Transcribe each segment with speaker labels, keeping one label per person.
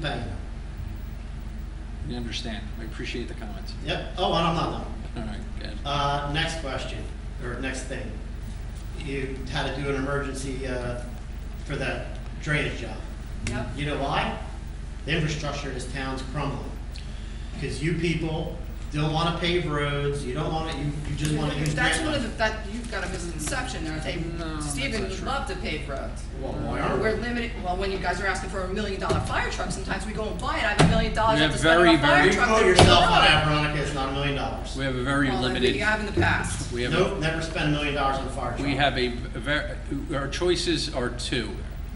Speaker 1: Penny.
Speaker 2: We understand. We appreciate the comments.
Speaker 1: Yep, oh, and I'm not done.
Speaker 2: All right, good.
Speaker 1: Uh, next question, or next thing. You had to do an emergency, uh, for that drainage job.
Speaker 3: Yep.
Speaker 1: You know why? The infrastructure in this town's crumbling. Because you people don't wanna pave roads, you don't wanna, you, you just wanna use
Speaker 3: That's
Speaker 1: grant
Speaker 3: one of the,
Speaker 1: money.
Speaker 3: that, you've got a misconception there, I think,
Speaker 2: No, that's
Speaker 3: Stephen
Speaker 2: not
Speaker 3: would
Speaker 2: true.
Speaker 3: love to pave roads.
Speaker 1: Well, why aren't
Speaker 3: We're
Speaker 1: we?
Speaker 3: limited, well, when you guys are asking for a million dollar fire truck, sometimes we go and buy it, I have a million dollars,
Speaker 2: You
Speaker 3: I have to
Speaker 2: have
Speaker 3: spend on
Speaker 2: very,
Speaker 3: a fire
Speaker 2: very-
Speaker 1: You
Speaker 3: truck.
Speaker 1: quote
Speaker 3: to
Speaker 1: yourself
Speaker 3: build
Speaker 1: on
Speaker 3: it.
Speaker 1: Veronica, it's not a million dollars.
Speaker 2: We have a very
Speaker 3: Well, I think
Speaker 2: limited,
Speaker 3: You have in the past.
Speaker 2: we have, a-
Speaker 1: Nope, never spend a million dollars on a fire truck.
Speaker 2: we have a, ver- our choices are two.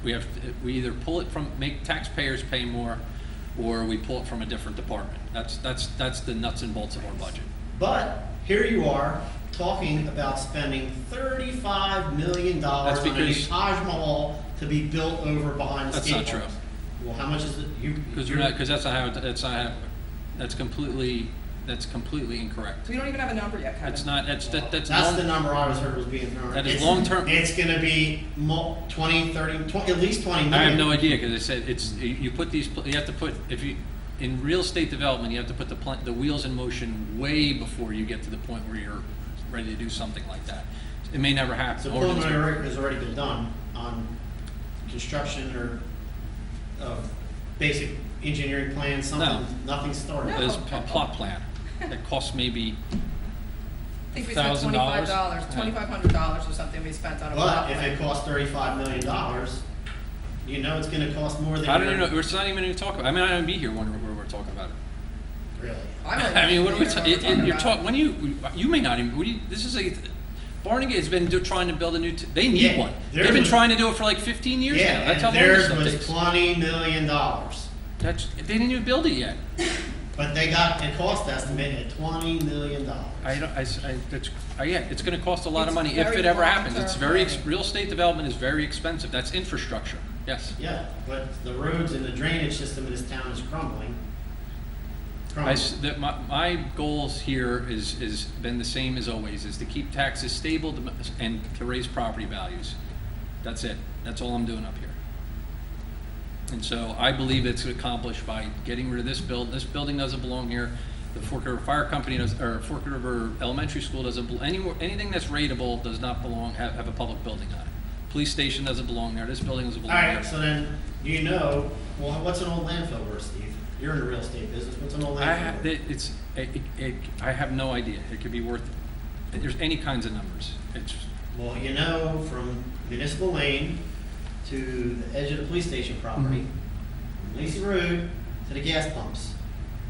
Speaker 2: We have, we either pull it from, make taxpayers pay more, or we pull it from a different department. That's, that's, that's the nuts and bolts of our budget.
Speaker 1: But here you are talking about spending thirty-five million dollars
Speaker 2: That's
Speaker 1: on a new
Speaker 2: because-
Speaker 1: Taj Mahal to be built over behind the
Speaker 2: That's
Speaker 1: state.
Speaker 2: not true.
Speaker 1: House. Well, how much is it? You,
Speaker 2: Because
Speaker 1: you're
Speaker 2: we're not, because that's not how, it- that's not how, that's completely, that's completely incorrect.
Speaker 3: We don't even have a number yet, Kevin.
Speaker 2: That's not, that's, that, that's. long-
Speaker 1: the number I was heard was being thrown.
Speaker 2: That is
Speaker 1: It's-
Speaker 2: long-term-
Speaker 1: It's gonna be mo- twenty, thirty, tw- at least twenty million.
Speaker 2: I have no idea, because I said, it's, you- you put these, pl- you have to put, if you, in real estate development, you have to put the plan, the wheels in motion way before you get to the point where you're ready to do something like that. It may never happen.
Speaker 1: So
Speaker 2: or it's-
Speaker 1: preliminary work has already been done on construction or, uh, basic engineering plans, something,
Speaker 2: No.
Speaker 1: nothing started.
Speaker 3: No.
Speaker 2: There's a plot plan that costs maybe,
Speaker 3: I think we spent
Speaker 2: $1,000?
Speaker 3: twenty-five dollars, twenty-five hundred dollars or something we spent on a
Speaker 1: But
Speaker 3: lot.
Speaker 1: if it costs thirty-five million dollars, you know it's gonna cost more than.
Speaker 2: I don't even
Speaker 1: your-
Speaker 2: know, it's not even gonna talk about, I mean, I don't be here when we're, we're talking about it.
Speaker 1: Really?
Speaker 2: I mean, what are we, ta- it- it- you're
Speaker 3: talking?
Speaker 2: talking, when you, you may not even, what do you, this is a, Barnegat has been do- trying to build a new, t- they
Speaker 1: Yeah,
Speaker 2: need one.
Speaker 1: theirs
Speaker 2: They've been
Speaker 1: was-
Speaker 2: trying to do it for like fifteen years
Speaker 1: Yeah,
Speaker 2: now, that's how
Speaker 1: and
Speaker 2: long this
Speaker 1: theirs
Speaker 2: stuff
Speaker 1: was
Speaker 2: takes.
Speaker 1: twenty million dollars,
Speaker 2: That's, they didn't even build it yet.
Speaker 1: but they got a cost estimate at twenty million
Speaker 2: I
Speaker 1: dollars.
Speaker 2: don't, I, s- I- that's, I, yeah, it's gonna cost a lot of
Speaker 3: It's
Speaker 2: money if
Speaker 3: very
Speaker 2: it ever happens. It's
Speaker 3: long-term
Speaker 2: very, ex-
Speaker 3: planning.
Speaker 2: real estate development is very expensive. That's infrastructure. Yes.
Speaker 1: Yeah, but the roads and the drainage system in this town is crumbling.
Speaker 2: I
Speaker 1: Crumbling.
Speaker 2: s that my, my goals here is, is been the same as always, is to keep taxes stable to m- and to raise property values. That's it. That's all I'm doing up here. And so I believe it's accomplished by getting rid of this build, this building doesn't belong here. The Fork River Fire Company does, or Fork River Elementary School doesn't, bel- anywhere, anything that's rateable does not belong, have, have a public building on it. Police station doesn't belong there, this building doesn't belong there.
Speaker 1: Alright, so then, you know, well, what's an old landfill worth, Steve? You're in the real estate business, what's an old
Speaker 2: I
Speaker 1: landfill
Speaker 2: have,
Speaker 1: worth?
Speaker 2: it- it's, it, it- it, I have no idea. It could be worth, there's any kinds of numbers. It's,
Speaker 1: Well, you know, from Municipal Lane to the edge of the police station property, from Lacey Road to the gas pumps,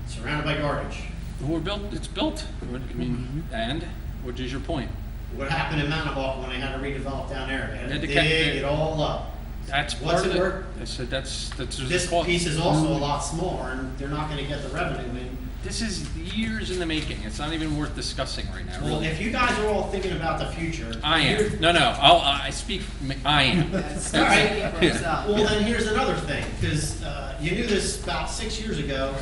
Speaker 1: surrounded by garbage.
Speaker 2: we're built, it's built. What- I mean,
Speaker 1: Mm-hmm.
Speaker 2: and, which is your point?
Speaker 1: What happened in Mount Hawk when they had to redevelop down there? They had
Speaker 2: They had
Speaker 1: to
Speaker 2: to
Speaker 1: dig
Speaker 2: cut-
Speaker 1: it all up.
Speaker 2: That's
Speaker 1: What's
Speaker 2: part
Speaker 1: it
Speaker 2: of it.
Speaker 1: worth?
Speaker 2: I said, that's, that's. there's a
Speaker 1: This
Speaker 2: cost.
Speaker 1: piece is also a lot smaller, and they're not gonna get the revenue in.
Speaker 2: This is years in the making. It's not even worth discussing right now,
Speaker 1: Well,
Speaker 2: really.
Speaker 1: if you guys are all thinking about the future.
Speaker 2: I
Speaker 1: here-
Speaker 2: am. No, no, I'll, I speak, I am.
Speaker 3: Start
Speaker 1: Alright.
Speaker 3: speaking for yourself.
Speaker 1: Well, then here's another thing, because uh, you knew this about six years ago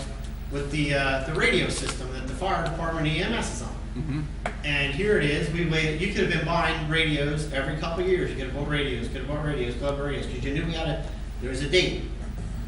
Speaker 1: with the, uh, the radio system that the fire department EMS is on.
Speaker 2: Mhm.
Speaker 1: And here it is, we waited, you could have been buying radios every couple of years, you could have bought radios, could have bought radios, could have bought radios, because you knew we had a, there was a date.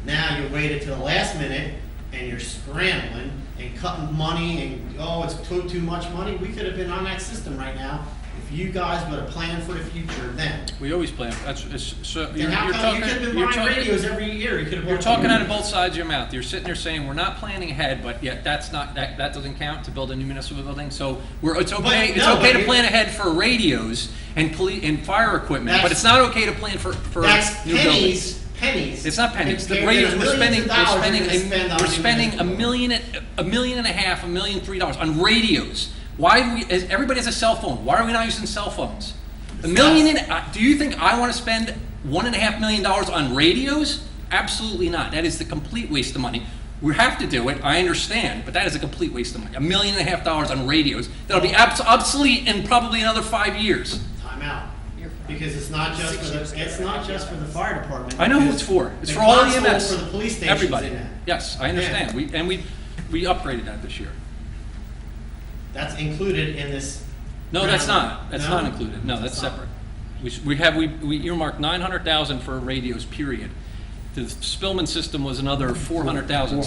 Speaker 1: Now you waited till the last minute, and you're scrambling and cutting money, and, oh, it's too, too much money, we could have been on that system right now, if you guys would have planned for the future then.
Speaker 2: We always plan, that's, it's, so. you're
Speaker 1: Then how
Speaker 2: you're
Speaker 1: come, you
Speaker 2: talking-
Speaker 1: could have
Speaker 2: you're
Speaker 1: been buying
Speaker 2: talking-
Speaker 1: radios every year, you could have bought.
Speaker 2: You're talking out of both sides of your mouth. You're sitting there saying, we're not planning ahead, but yet that's not, that, that doesn't count to build a new municipal building. So we're, it's okay, it's
Speaker 1: no,
Speaker 2: okay
Speaker 1: but
Speaker 2: to
Speaker 1: you-
Speaker 2: plan ahead for radios and police, and fire equipment, but
Speaker 1: That's-
Speaker 2: it's not okay to plan for, for
Speaker 1: That's
Speaker 2: new buildings.
Speaker 1: pennies, pennies.
Speaker 2: It's not pennies. The
Speaker 1: compared to
Speaker 2: radios,
Speaker 1: the
Speaker 2: we're spending,
Speaker 1: millions of
Speaker 2: we're
Speaker 1: dollars
Speaker 2: spending,
Speaker 1: you're gonna spend
Speaker 2: a-
Speaker 1: on
Speaker 2: we're
Speaker 1: new
Speaker 2: spending a
Speaker 1: buildings.
Speaker 2: million, and- a million and a half, a million, three dollars on radios. Why do we, is- everybody has a cell phone. Why are we not using cell phones? A million and, uh, do you think I want to spend one and a half million dollars on radios? Absolutely not. That is the complete waste of money. We have to do it, I understand, but that is a complete waste of money. A million and a half dollars on radios that'll be abs- obsolete in probably another five years.
Speaker 1: Time out.
Speaker 3: You're fine.
Speaker 1: Because it's not just
Speaker 3: Six
Speaker 1: for
Speaker 3: years
Speaker 1: the,
Speaker 3: ago,
Speaker 1: it's not
Speaker 3: I
Speaker 1: just for
Speaker 3: did
Speaker 1: the
Speaker 3: that.
Speaker 1: fire department.
Speaker 2: I know who
Speaker 1: because
Speaker 2: it's for. It's
Speaker 1: the
Speaker 2: for all
Speaker 1: console
Speaker 2: EMS.
Speaker 1: For the police stations
Speaker 2: Everybody.
Speaker 1: in that.
Speaker 2: Yes, I understand. We, and we, we upgraded that this year.
Speaker 1: That's included in this.
Speaker 2: No, that's
Speaker 1: round.
Speaker 2: not. That's
Speaker 1: No?
Speaker 2: not included. No, that's
Speaker 1: It's not.
Speaker 2: separate. We, s- we have, we, we earmarked nine hundred thousand for radios, period. the Spillman system was another four hundred thousand,